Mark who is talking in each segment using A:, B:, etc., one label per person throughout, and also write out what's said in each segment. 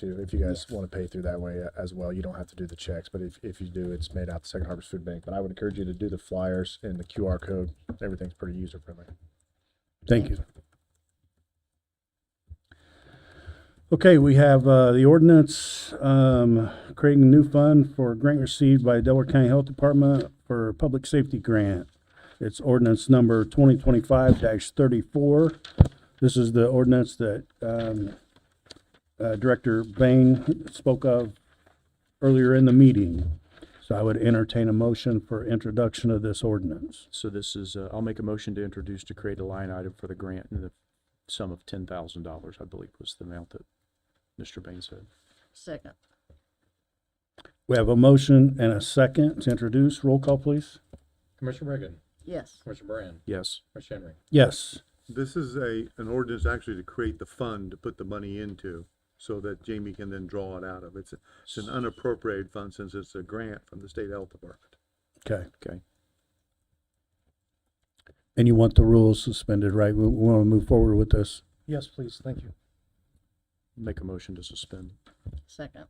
A: too. If you guys want to pay through that way uh, as well, you don't have to do the checks. But if, if you do, it's made out to Second Harvest Food Bank. But I would encourage you to do the flyers and the QR code. Everything's pretty user friendly.
B: Thank you. Okay, we have uh, the ordinance um, creating a new fund for a grant received by Delaware County Health Department for Public Safety Grant. It's ordinance number 2025-34. This is the ordinance that um, uh, Director Bain spoke of earlier in the meeting. So I would entertain a motion for introduction of this ordinance.
C: So this is, uh, I'll make a motion to introduce to create a line item for the grant in the sum of ten thousand dollars, I believe was the amount that Mr. Bain said.
D: Second.
B: We have a motion and a second to introduce. Roll call, please.
E: Commissioner Reagan,
D: Yes.
E: Commissioner Brand,
C: Yes,
E: Commissioner Henry.
B: Yes.
F: This is a, an ordinance actually to create the fund to put the money into, so that Jamie can then draw it out of. It's, it's an unappropriated fund since it's a grant from the state health department.
B: Okay.
C: okay.
B: And you want the rules suspended, right? We want to move forward with this.
A: Yes, please. Thank you.
C: Make a motion to suspend.
D: Second.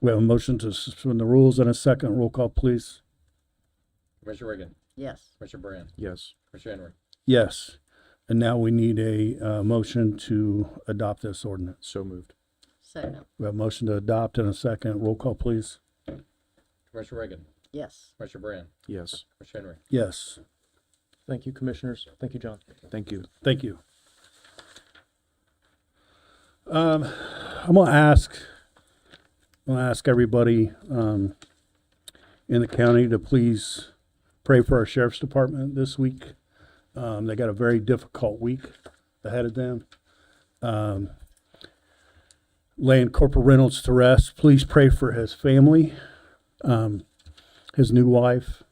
B: We have a motion to suspend the rules and a second. Roll call, please.
E: Commissioner Reagan,
D: Yes.
E: Commissioner Brand,
C: Yes,
E: Commissioner Henry.
B: Yes. And now we need a uh, motion to adopt this ordinance.
C: so moved.
D: Second.
B: We have a motion to adopt and a second. Roll call, please.
E: Commissioner Reagan,
D: Yes.
E: Commissioner Brand,
C: Yes,
E: Commissioner Henry.
B: Yes.
G: Thank you, commissioners. Thank you, John.
C: thank you.
B: Thank you. Um, I'm gonna ask, I'm gonna ask everybody, um, in the county to please pray for our sheriff's department this week. Um, they got a very difficult week ahead of them. Um, laying Corporal Reynolds to rest, please pray for his family, um, his new wife.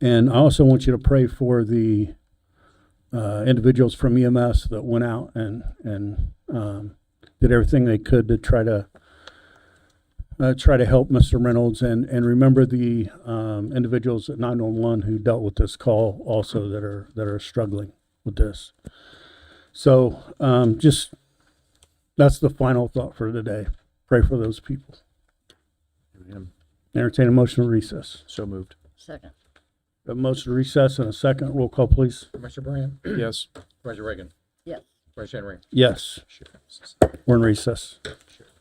B: And I also want you to pray for the, uh, individuals from EMS that went out and and um, did everything they could to try to uh, try to help Mr. Reynolds and and remember the um, individuals at 911 who dealt with this call also that are that are struggling with this. So um, just that's the final thought for today. Pray for those people.
C: Amen.
B: Entertain a motion to recess.
C: So moved.
D: Second.
B: A motion to recess and a second roll call, please.
E: Commissioner Brand,
C: Yes.
E: Commissioner Reagan,
D: Yes.
E: Commissioner Henry.
B: Yes, we're in recess.
E: Sure.